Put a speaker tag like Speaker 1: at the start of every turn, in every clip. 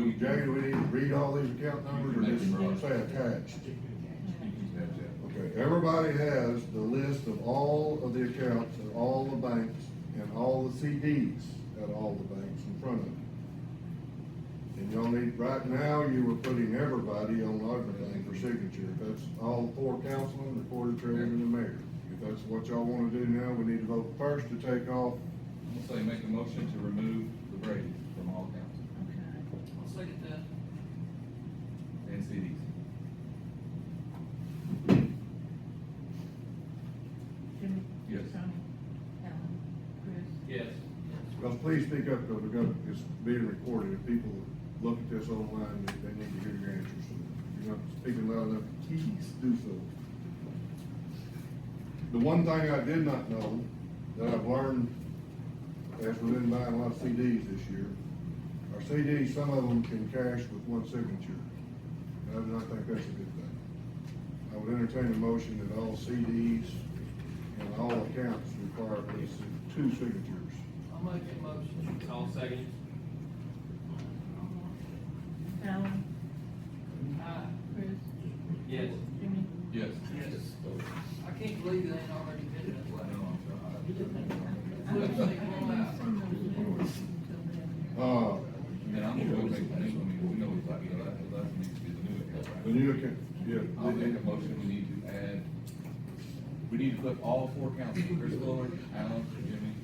Speaker 1: Jay, do we need to read all these account numbers or just say attached?
Speaker 2: That's it.
Speaker 1: Okay, everybody has the list of all of the accounts at all the banks and all the CDs at all the banks in front of you. And y'all need, right now, you were putting everybody on everything for signature. If that's all four councilmen, the quarter treasurer and the mayor. If that's what y'all wanna do now, we need to vote first to take off.
Speaker 2: I'm gonna say make a motion to remove the Brady from all counts
Speaker 3: Okay.
Speaker 4: I'll second that.
Speaker 2: and CDs.
Speaker 3: Jimmy?
Speaker 2: Yes.
Speaker 3: Tony? Alan? Chris?
Speaker 4: Yes.
Speaker 1: Well, please speak up, because we're gonna, it's being recorded, if people look at this online, they, they need to hear your answers. If you're not speaking loud enough, please do so. The one thing I did not know, that I've learned, as we've been buying a lot of CDs this year, our CDs, some of them can cash with one signature. And I do not think that's a good thing. I would entertain a motion that all CDs and all accounts require at least two signatures.
Speaker 4: I'll make a motion. I'll second.
Speaker 3: Alan?
Speaker 4: Aye.
Speaker 3: Chris?
Speaker 4: Yes.
Speaker 3: Jimmy?
Speaker 2: Yes.
Speaker 4: Yes. I can't believe they ain't already been that
Speaker 2: No,
Speaker 4: way.
Speaker 2: I'm
Speaker 3: I don't
Speaker 2: sorry.
Speaker 3: think we'll have some of those numbers until then.
Speaker 1: Uh,
Speaker 2: And then I'm gonna make a new, I mean, we know it's like, you know, that, that needs to be the new account. right?
Speaker 1: the new account, yeah,
Speaker 2: I'll
Speaker 1: the-
Speaker 2: make a motion, we need to add, we need to put all four councilmen, Chris Fuller, Alan, Jimmy,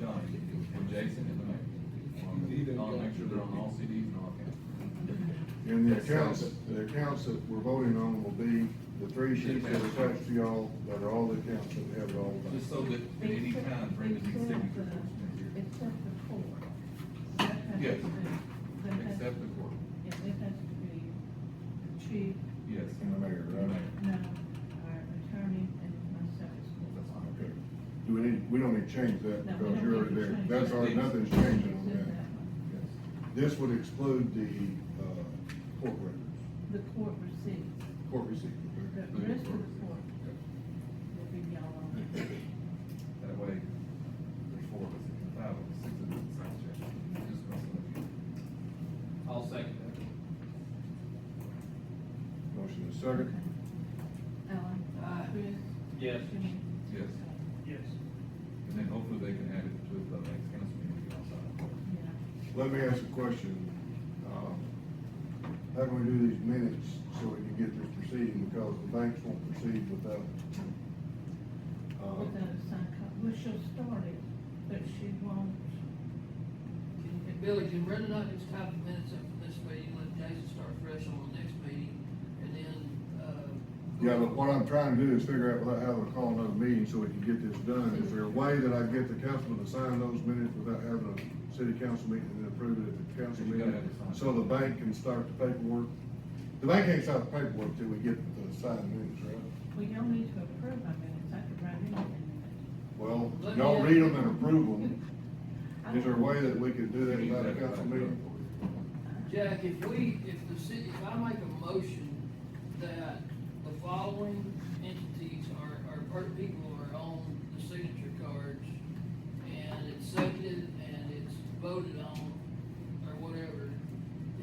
Speaker 2: Johnny, and Jason and the mayor. I'll make sure they're on all CDs and all counts.
Speaker 1: and the accounts, the accounts that we're voting on will be the three sheets that are attached to y'all, that are all the accounts that we have it all
Speaker 2: Just
Speaker 1: about.
Speaker 2: so that at any time, Brandon needs signature.
Speaker 3: Except for four. That has to
Speaker 2: Yes.
Speaker 3: be- that has-
Speaker 2: Except the court.
Speaker 3: Yeah, that has to be chief,
Speaker 2: Yes.
Speaker 1: And the mayor, right?
Speaker 3: no, our attorney, and myself.
Speaker 1: Okay. Do we need, we don't need to change that,
Speaker 3: No, we
Speaker 1: because
Speaker 3: don't
Speaker 1: you're
Speaker 3: need
Speaker 1: already
Speaker 3: to
Speaker 1: there,
Speaker 3: change
Speaker 1: that's
Speaker 3: that.
Speaker 1: already, nothing's changing on
Speaker 3: Just
Speaker 1: that.
Speaker 3: that one.
Speaker 2: Yes.
Speaker 1: This would exclude the, uh, court records,
Speaker 3: The court receipts,
Speaker 1: court receipts,
Speaker 3: the
Speaker 1: okay?
Speaker 3: rest of the court will be y'all on.
Speaker 2: That way, there's four of us, five of us, six of us, sound check. Just cross it out.
Speaker 4: I'll second that.
Speaker 1: Motion is second.
Speaker 3: Alan?
Speaker 4: Aye.
Speaker 3: Chris?
Speaker 4: Yes.
Speaker 3: Jimmy?
Speaker 2: Yes.
Speaker 4: Yes.
Speaker 2: And then hopefully they can add it to the next council meeting outside.
Speaker 3: Yeah.
Speaker 1: Let me ask a question. Um, How can we do these minutes so we can get this proceeding, because the banks won't proceed without. uh,
Speaker 3: Without a sign copy, well, she'll start it, but she won't,
Speaker 4: And Billy, can Brenda not just type the minutes up for this meeting, let Jason start fresh on the next meeting, and then, uh.
Speaker 1: Yeah, but what I'm trying to do is figure out without having to call another meeting so we can get this done. Is there a way that I can get the councilman to sign those minutes without having a city council meeting and then approve it at the council
Speaker 2: You gotta
Speaker 1: meeting?
Speaker 2: have it signed.
Speaker 1: So the bank can start the paperwork? The bank can't start the paperwork till we get the signed minutes, right?
Speaker 3: well, y'all need to approve my minutes, I could write anything in
Speaker 1: Well,
Speaker 4: Let me
Speaker 1: y'all
Speaker 4: ask-
Speaker 1: read them and approve them.
Speaker 3: a minute.
Speaker 1: Is there a way that we could do that
Speaker 2: You
Speaker 1: without a
Speaker 2: need that
Speaker 1: council
Speaker 2: back.
Speaker 1: meeting?
Speaker 4: Jack, if we, if the city, if I make a motion that the following entities are, are, per- people are on the signature cards, and it's seconded, and it's voted on, or whatever,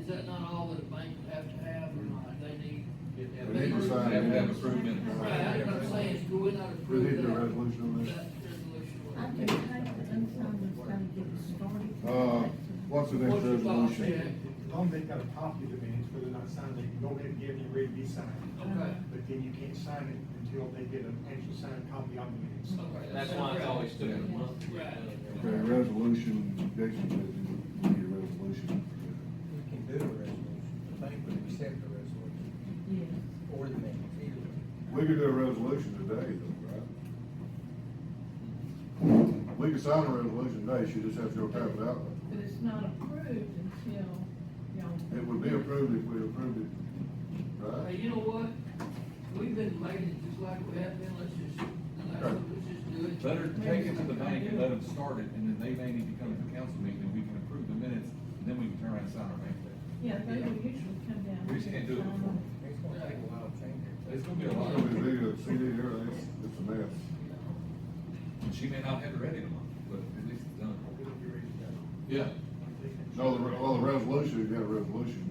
Speaker 4: is that not all that a bank would have to have, or not, they need?
Speaker 1: They need to
Speaker 2: They have
Speaker 1: sign
Speaker 2: to have
Speaker 1: minutes.
Speaker 2: approved minutes.
Speaker 4: Right, that's what I'm saying, do we not
Speaker 1: We
Speaker 4: approve that?
Speaker 1: need the resolution on this.
Speaker 4: That resolution.
Speaker 3: I can type the unsigned that's gonna get started.
Speaker 1: Uh, what's the next
Speaker 4: What's your thoughts, Jack?
Speaker 1: resolution?
Speaker 5: As long as they've got a copy of the minutes, whether or not signed, they can go ahead and give it ready to be signed.
Speaker 4: Okay.
Speaker 5: But then you can't sign it until they get an actual signed copy of the minutes.
Speaker 3: Um,
Speaker 4: Okay,
Speaker 6: That's why it's always took a month.
Speaker 4: Right.
Speaker 1: Okay, resolution, Jason says we need a resolution.
Speaker 7: We can do a resolution, the bank would accept the resolution,
Speaker 3: Yes,
Speaker 7: or the minutes, either way.
Speaker 1: We could do a resolution today, though, right? We could sign a resolution today, she just has to go type it out.
Speaker 3: but it's not approved until y'all.
Speaker 1: It would be approved if we approved it,
Speaker 4: Hey,
Speaker 1: right?
Speaker 4: you know what? We've been making it just like we have been, let's just, let's, let's just do it.
Speaker 2: Better take it to the bank and let them start it, and then they may need to come to the council meeting, and we can approve the minutes, and then we can turn around and sign our bank debt.
Speaker 3: Yeah, they will usually come down.
Speaker 2: We just can't do it before.
Speaker 7: It's gonna take a while to change it.
Speaker 2: It's gonna be
Speaker 1: It's
Speaker 2: a lot
Speaker 1: gonna
Speaker 2: of, and
Speaker 1: be big, a CD here, it's, it's a mess.
Speaker 2: she may not have it ready in a month, but at least it's done.
Speaker 5: It'll be ready to go.
Speaker 2: Yeah.
Speaker 1: No, the, re- well, the resolution, you got a resolution,